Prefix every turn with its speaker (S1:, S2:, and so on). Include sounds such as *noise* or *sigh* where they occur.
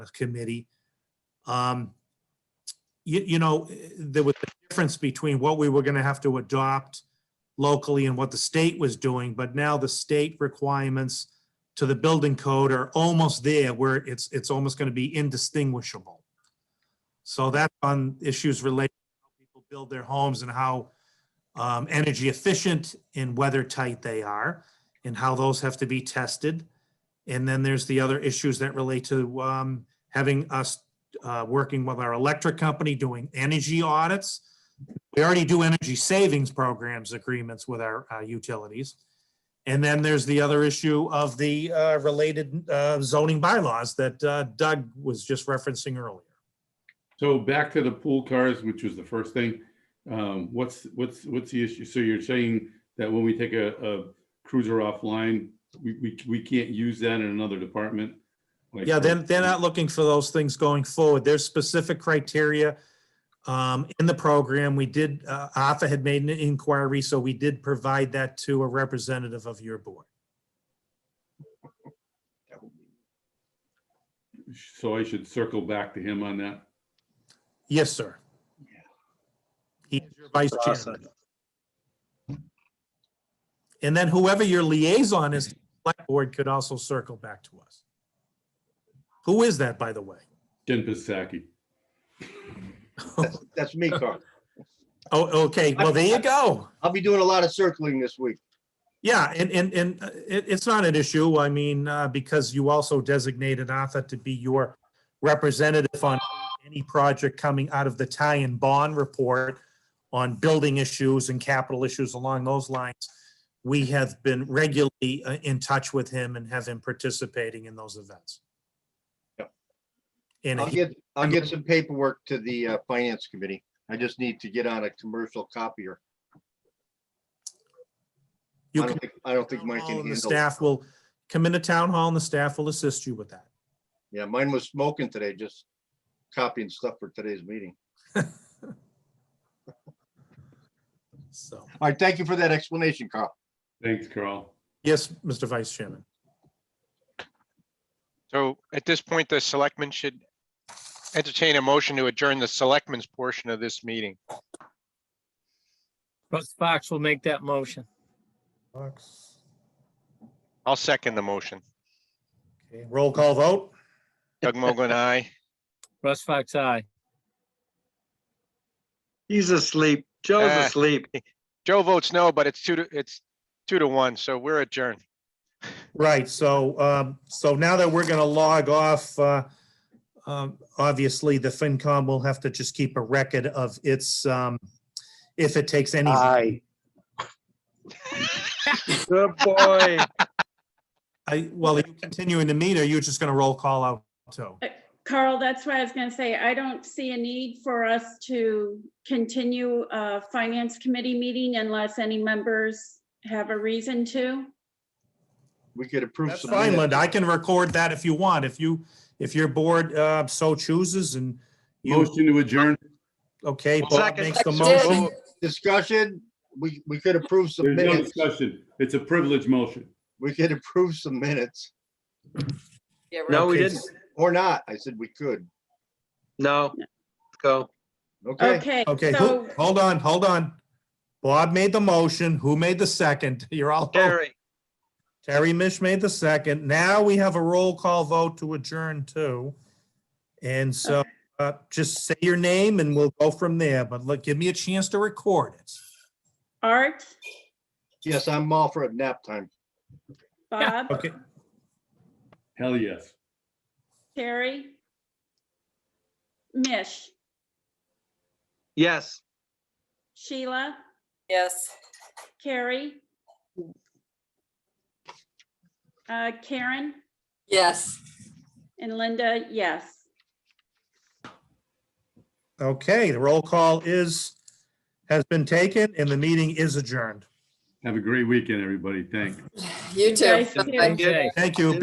S1: committee. Um, You, you know, there was a difference between what we were going to have to adopt locally and what the state was doing, but now the state requirements to the building code are almost there where it's, it's almost going to be indistinguishable. So that's on issues related to how people build their homes and how um, energy efficient and weather tight they are and how those have to be tested. And then there's the other issues that relate to um, having us uh, working with our electric company, doing energy audits. We already do energy savings programs agreements with our uh, utilities. And then there's the other issue of the uh, related uh, zoning bylaws that uh, Doug was just referencing earlier.
S2: So back to the pool cars, which was the first thing. Um, what's, what's, what's the issue? So you're saying that when we take a, a cruiser offline, we, we, we can't use that in another department? Like-
S1: Yeah, then they're not looking for those things going forward. There's specific criteria um, in the program. We did, uh, Arthur had made an inquiry, so we did provide that to a representative of your board.
S2: So I should circle back to him on that.
S1: Yes, sir. He is your vice chairman. And then whoever your liaison is, to the select board could also circle back to us. Who is that, by the way?
S2: Jen Pisaki.
S3: That's,
S1: *laughs*
S3: that's me, Carl.
S1: Oh, okay, well, there you go.
S3: I'll be doing a lot of circling this week.
S1: Yeah, and, and, and uh, it, it's not an issue. I mean, uh, because you also designated Arthur to be your representative on any project coming out of the tie and bond report on building issues and capital issues along those lines. We have been regularly uh, in touch with him and have him participating in those events.
S3: Yep.
S1: And
S3: I'll
S1: he-
S3: get, I'll get some paperwork to the uh, finance committee. I just need to get on a commercial copier.
S1: you
S3: I
S1: can,
S3: don't think, I don't think mine can
S1: the
S3: handle.
S1: staff will come into town hall and the staff will assist you with that.
S3: Yeah, mine was smoking today, just copying stuff for today's meeting.
S1: So,
S3: All right, thank you for that explanation, Carl.
S2: Thanks, Carl.
S1: yes, Mr. Vice Chairman.
S4: So at this point, the selectmen should entertain a motion to adjourn the selectmen's portion of this meeting.
S5: Russ Fox will make that motion.
S4: I'll second the motion.
S1: Okay, Roll call vote.
S4: Doug Mogul and I.
S5: Russ Fox, aye.
S6: He's asleep. Joe's
S4: Ah.
S6: asleep.
S4: Joe votes no, but it's two to, it's two to one, so we're adjourned.
S1: Right, so, um, so now that we're gonna log off, uh, um, obviously, the FinCom will have to just keep a record of its, um, if it takes any, I,
S6: Good boy.
S1: well, are you continuing to meet, or are you just gonna roll call out too?
S7: Carl, that's why I was gonna say, I don't see a need for us to continue a finance committee meeting unless any members have a reason to.
S3: We could approve
S1: That's
S3: some.
S1: fine,
S3: minutes.
S1: Linda, I can record that if you want, if you, if your board, uh, so chooses and you,
S2: Motion to adjourn.
S1: okay, Bob
S4: Second.
S1: makes the
S4: Second.
S1: motion.
S3: Discussion, we, we could approve some
S2: There's no
S3: minutes.
S2: discussion. It's a privilege motion.
S3: We could approve some minutes
S8: Yeah,
S6: No, we
S1: Okay.
S6: didn't.
S3: or not. I said we could.
S6: No. Go.
S3: Okay,
S7: Okay,
S1: Okay, who,
S7: so
S1: hold on, hold on. Bob made the motion, who made the second? *laughs* You're all. over.
S6: Gary.
S1: Terry Mish made the second. Now we have a roll call vote to adjourn too. And so uh, just say your name and we'll go from there, but look, give me a chance to record it.
S7: Art,
S3: yes, I'm all for a nap time.
S7: Bob,
S1: Okay,
S2: Hell, yes.
S7: Terry, Mish,
S6: Yes.
S7: Sheila,
S8: yes.
S7: Carrie, uh, Karen,
S8: Yes. *sighs*
S7: and Linda, yes.
S1: okay, the roll call is, has been taken and the meeting is adjourned.
S2: Have a great weekend, everybody. Thanks.
S8: You
S7: guys
S8: too.
S7: too.
S8: Bye.
S5: Okay.
S1: Thank you.